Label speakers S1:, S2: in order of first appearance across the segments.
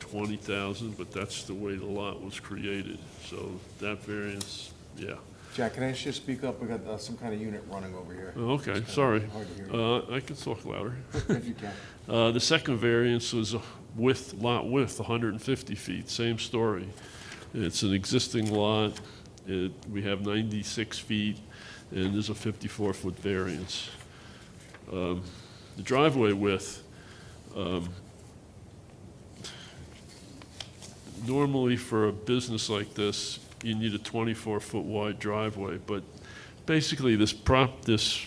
S1: twenty thousand, but that's the way the lot was created. So that variance, yeah.
S2: Jack, can I ask you to speak up? We got uh, some kind of unit running over here.
S1: Oh, Okay,
S2: It's kinda
S1: sorry.
S2: Hard to hear you.
S1: Uh, I can talk louder.
S2: If you can.
S1: Uh, The second variance was with lot width, 150 feet, same story. It's an existing lot, It- we have 96 feet, and there's a 54-foot variance. Um, The driveway width, um, normally for a business like this, you need a 24-foot wide driveway, but basically, this prop, this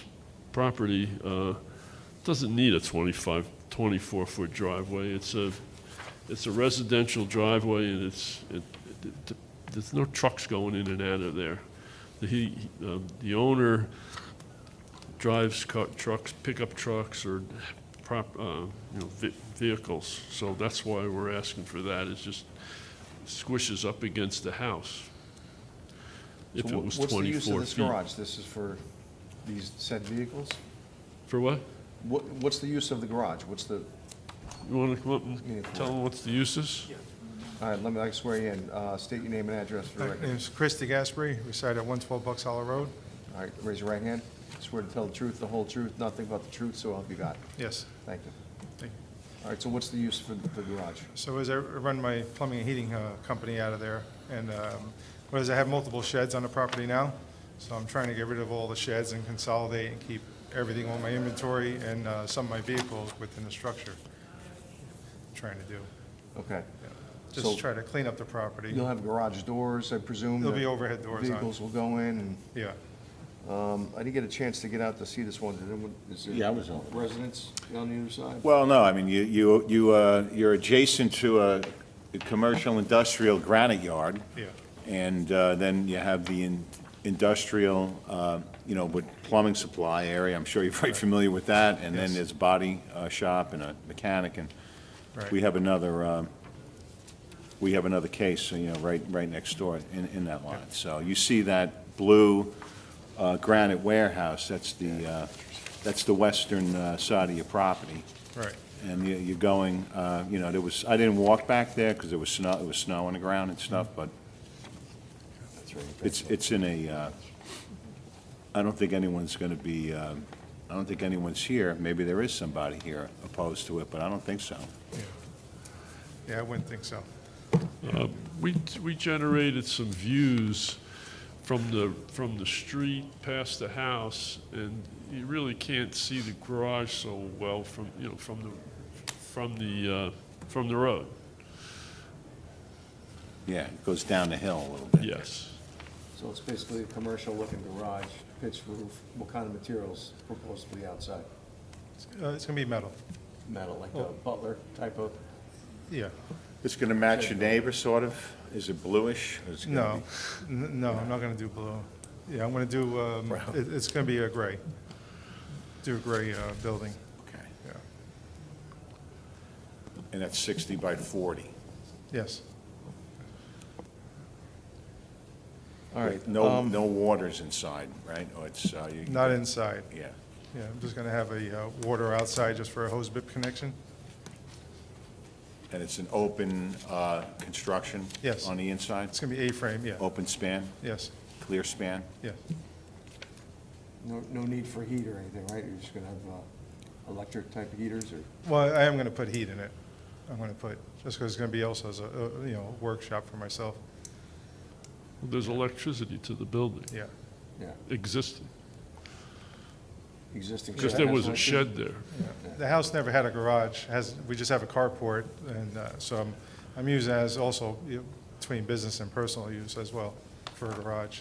S1: property uh, doesn't need a 25, 24-foot driveway. It's a, it's a residential driveway, and it's, it- it- it- there's no trucks going in and out of there. The- He, um, the owner drives car- trucks, pickup trucks or prop, uh, you know, ve- vehicles. So that's why we're asking for that, it's just squishes up against the house. If
S2: So
S1: it
S2: wh-
S1: was
S2: What's the use of
S1: 24
S2: this
S1: feet.
S2: garage? This is for these said vehicles?
S1: For what?
S2: What, what's the use of the garage? What's the,
S1: You want to come up and
S2: Yeah,
S1: tell them what's the uses?
S2: all right, let me, I swear you in. Uh, State your name and address for the
S3: My
S2: record.
S3: name's Chris DeGaspery, reside at 112 Bucks Hollow Road.
S2: All right, raise your right hand. Swear to tell the truth, the whole truth, nothing but the truth, so help you God.
S3: Yes.
S2: Thank you.
S3: thank you.
S2: All right, so what's the use for the garage?
S3: So as I run my plumbing and heating uh, company out of there, and um, whereas I have multiple sheds on the property now, so I'm trying to get rid of all the sheds and consolidate and keep everything on my inventory and uh, some of my vehicles within the structure. Trying to do,
S2: Okay.
S3: yeah.
S2: So-
S3: Just try to clean up the property.
S2: You'll have garage doors, I presume?
S3: There'll
S2: that
S3: be overhead doors on.
S2: Vehicles will go in, and
S3: Yeah,
S2: I didn't get a chance to get out to see this one. Did anyone, is there?
S4: Yeah, I was out.
S2: Residents on the other side?
S4: Well, no, I mean, you, you, you, uh, you're adjacent to a commercial industrial granite yard,
S3: yeah,
S4: and uh, then you have the in- industrial, uh, you know, with plumbing supply area, I'm sure you're very familiar with that, and then
S3: Yes.
S4: there's body uh, shop and a mechanic, and
S3: right.
S4: we have another, um, we have another case, you know, right, right next door in, in that lot. So you see that blue uh, granite warehouse, that's the, uh, that's the western uh, side of your property.
S3: Right,
S4: And you- you're going, uh, you know, there was, I didn't walk back there because there was snow, it was snow on the ground and stuff, but
S2: That's right.
S4: it's, it's in a, uh, I don't think anyone's going to be, um, I don't think anyone's here. Maybe there is somebody here opposed to it, but I don't think so.
S3: yeah. Yeah, I wouldn't think so.
S1: Uh, We, we generated some views from the, from the street past the house, and you really can't see the garage so well from, you know, from the, from the, uh, from the road,
S4: Yeah, it goes down the hill a little bit.
S1: yes.
S2: So it's basically a commercial-looking garage, pitch roof. What kind of materials proposed for the outside?
S3: Uh, It's going to be metal,
S2: Metal, like a butler type of?
S3: yeah.
S4: It's going to match your neighbor, sort of? Is it bluish? Is it gonna
S3: No, N- no, I'm not going to do blue. Yeah, I'm going to do, um,
S4: Brown.
S3: it- it's going to be a gray, do a gray uh, building,
S4: be- Okay.
S3: yeah.
S4: And that's 60 by 40?
S3: Yes,
S2: All right.
S4: No,
S2: um,
S4: no waters inside, right? Or it's, uh, you-
S3: not inside.
S4: Yeah.
S3: Yeah, I'm just going to have a uh, water outside just for a hose bib connection.
S4: And it's an open uh, construction?
S3: Yes.
S4: On the inside?
S3: It's going to be A-frame, yeah,
S4: Open span,
S3: yes,
S4: clear span?
S3: yes,
S2: No, no need for heat or anything, right? You're just gonna have, uh, electric type of heaters or?
S3: Well, I am going to put heat in it. I'm going to put, just because it's going to be also as a, uh, you know, workshop for myself,
S1: There's electricity to the building,
S3: yeah.
S2: Yeah,
S1: existing,
S2: existing.
S1: because
S2: shed
S1: there
S2: has
S1: was a
S2: electric?
S1: shed there.
S3: Yeah. The house never had a garage, has, we just have a carport, and uh, so I'm, I'm using it as also you know, between business and personal use as well for a garage.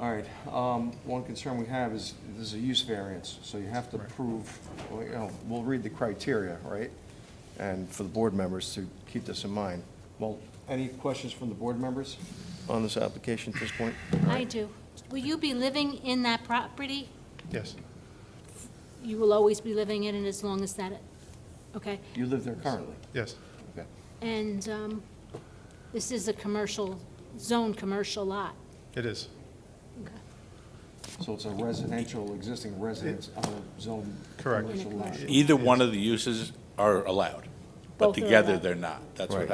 S2: All right, um, one concern we have is, this is a use variance, so you have to
S3: Right.
S2: prove, well, you know, we'll read the criteria, right? And for the board members to keep this in mind. Well, any questions from the board members on this application at this point?
S5: I do. Will you be living in that property?
S3: Yes,
S5: You will always be living in it as long as that, okay?
S2: You live there currently?
S3: yes,
S2: Okay.
S5: And um, this is a commercial, zone commercial lot.
S3: it is.
S5: Okay.
S2: So it's a residential, existing residence on a zone
S3: Correct.
S2: commercial lot?
S5: Correct.
S6: Either one of the uses are allowed.
S7: Both
S5: but
S7: are
S5: together
S7: allowed.
S5: they're not. That's what
S6: Right.